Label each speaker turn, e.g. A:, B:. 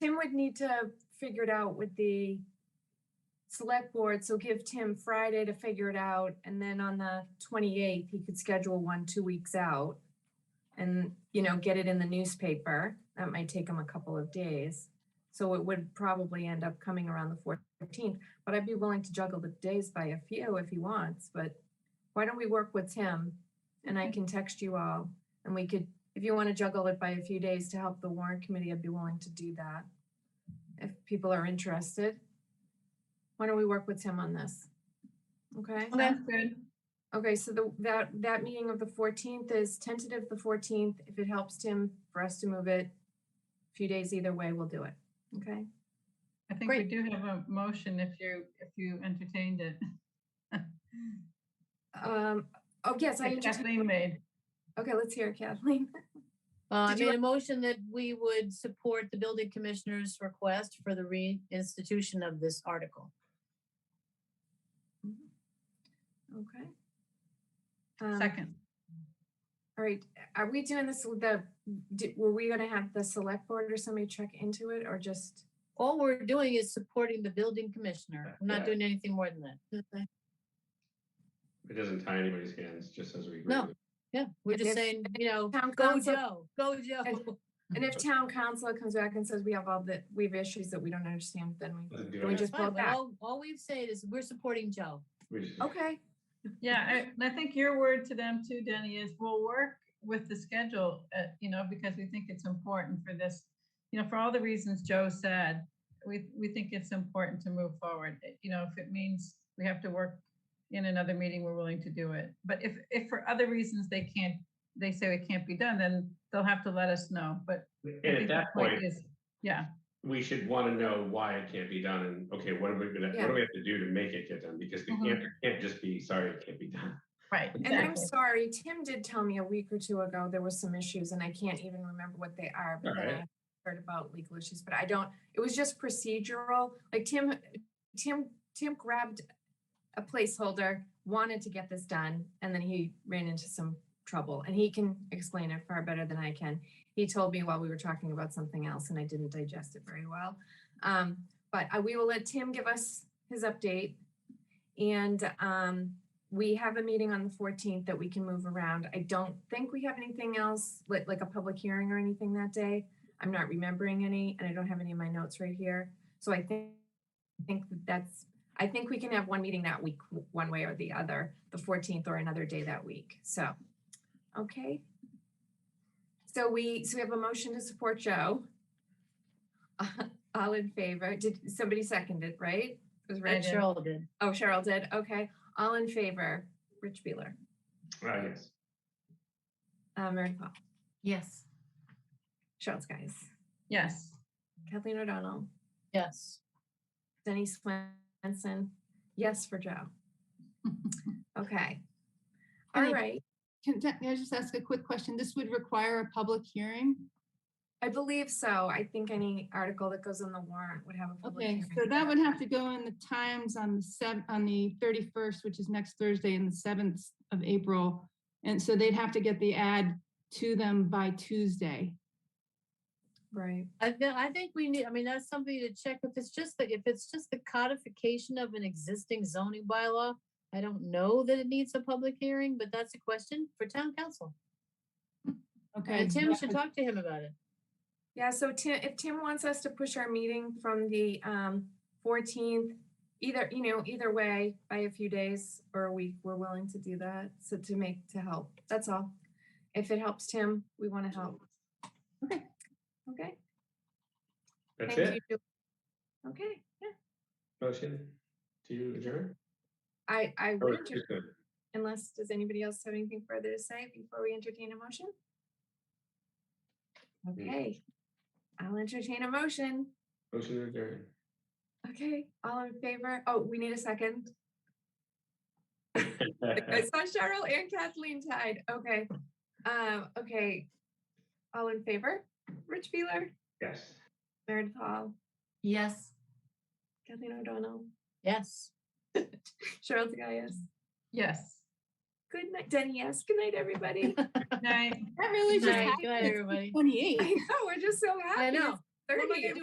A: Tim would need to figure it out with the select board, so give Tim Friday to figure it out, and then on the twenty-eighth, he could schedule one two weeks out. And, you know, get it in the newspaper. That might take him a couple of days. So it would probably end up coming around the fourteenth, but I'd be willing to juggle the days by a few if he wants, but why don't we work with Tim? And I can text you all, and we could, if you want to juggle it by a few days to help the warrant committee, I'd be willing to do that. If people are interested. Why don't we work with Tim on this? Okay?
B: That's good.
A: Okay, so the, that, that meeting of the fourteenth is tentative the fourteenth. If it helps Tim for us to move it a few days either way, we'll do it. Okay?
B: I think we
A: Great.
B: do have a motion if you, if you entertained it.
A: Um, oh, yes, I,
B: That
A: entertain-
B: Kathleen made.
A: okay, let's hear it, Kathleen.
C: Uh, I
A: Did you-
C: made a motion that we would support the building commissioner's request for the reinstitution of this article.
A: Okay. Um,
B: Second.
A: All right, are we doing this with the, di- were we gonna have the select board or somebody check into it or just?
C: All we're doing is supporting the building commissioner. I'm not
D: Yeah.
C: doing anything more than
A: Mm-hmm.
C: that.
D: It doesn't tie anybody's hands, just as we agree.
C: No.
D: with-
C: Yeah, we're just
A: If-
C: saying, you know,
A: Town
C: go
A: council-
C: Joe, go
A: And-
C: Joe.
A: And if town council comes back and says we have all the, we have issues that we don't understand, then we,
D: doesn't do
A: Can we
D: anything.
C: That's
A: just vote
C: fine, but
A: that?
C: All all we've said is we're supporting Joe.
D: We just-
A: okay,
B: Yeah, I- and I think your word to them too, Denny, is we'll work with the schedule, uh, you know, because we think it's important for this. You know, for all the reasons Joe said, we, we think it's important to move forward. Uh, You know, if it means we have to work in another meeting, we're willing to do it. But if, if for other reasons they can't, they say it can't be done, then they'll have to let us know, but. I
D: And
B: think
D: at
B: the
D: that point,
B: is- Yeah,
D: we should want to know why it can't be done and, okay, what are we gonna, what
A: Yeah. Mm-hmm.
D: do we have to do to make it get done? Because the
B: Mhm.
D: answer can't just be, sorry, it can't be done.
B: right.
A: and I'm
B: exactly.
A: sorry, Tim did tell me a week or two ago there were some issues and I can't even remember what they are, but then I
D: Alright.
A: heard about legal issues, but I don't, it was just procedural, like Tim, Tim, Tim grabbed a placeholder, wanted to get this done, and then he ran into some trouble, and he can explain it far better than I can. He told me while we were talking about something else, and I didn't digest it very well. Um, but I, we will let Tim give us his update. And, um, we have a meeting on the fourteenth that we can move around. I don't think we have anything else, like, like a public hearing or anything that day. I'm not remembering any, and I don't have any of my notes right here. So I think, I think that that's, I think we can have one meeting that week, w- one way or the other, the fourteenth or another day that week. So, okay. So we, so we have a motion to support Joe. All in favor? Did somebody second it, right? It was
B: I
A: Rich.
B: did.
C: Cheryl did.
A: Oh, Cheryl did. Okay. All in favor, Rich Beeler,
D: Uh, yes.
A: uh, Mary Paul,
C: Yes.
A: Cheryl Skies,
B: Yes.
A: Kathleen O'Donnell,
C: Yes.
A: Denny Swenson. Yes for Joe. Okay. All
E: Any-
A: right.
E: Can, can I just ask a quick question? This would require a public hearing?
A: I believe so. I think any article that goes on the warrant would have a public
E: Okay,
A: hearing.
E: so that would have to go in the Times on the sev, on the thirty-first, which is next Thursday and the seventh of April. And so they'd have to get the ad to them by Tuesday.
A: Right.
C: I, thi- I think we need, I mean, that's something to check if it's just the, if it's just the codification of an existing zoning bylaw. I don't know that it needs a public hearing, but that's a question for town council.
E: Okay.
C: And Tim should talk to him about it.
A: Yeah, so Tim, if Tim wants us to push our meeting from the um fourteenth, either, you know, either way, by a few days or a week, we're willing to do that. So to make, to help, that's all. If it helps Tim, we want to help. Okay. Okay.
D: That's
A: thank
D: it?
A: you. Okay, yeah,
D: Motion to adjourn?
A: I, I
D: Or
A: would, adjourn,
D: just a-
A: unless, does anybody else have anything further to say before we entertain a motion?
D: Hmm.
A: Okay, I'll entertain a motion.
D: Motion to adjourn.
A: Okay, all in favor? Oh, we need a second. I saw Cheryl and Kathleen tied. Okay. Um, okay. All in favor? Rich Beeler,
D: Yes.
A: Meredith Hall,
C: Yes.
A: Kathleen O'Donnell,
C: Yes.
A: Cheryl Tagayas.
B: Yes.
A: Good night, Denny. Yes. Good night, everybody.
B: Good night.
E: That really
C: Good
E: just
C: night,
E: happened.
C: good night, everybody.
E: Twenty-eight.
A: I know. We're just so happy.
C: I
A: it's
C: know. What am I
A: 30.
C: gonna do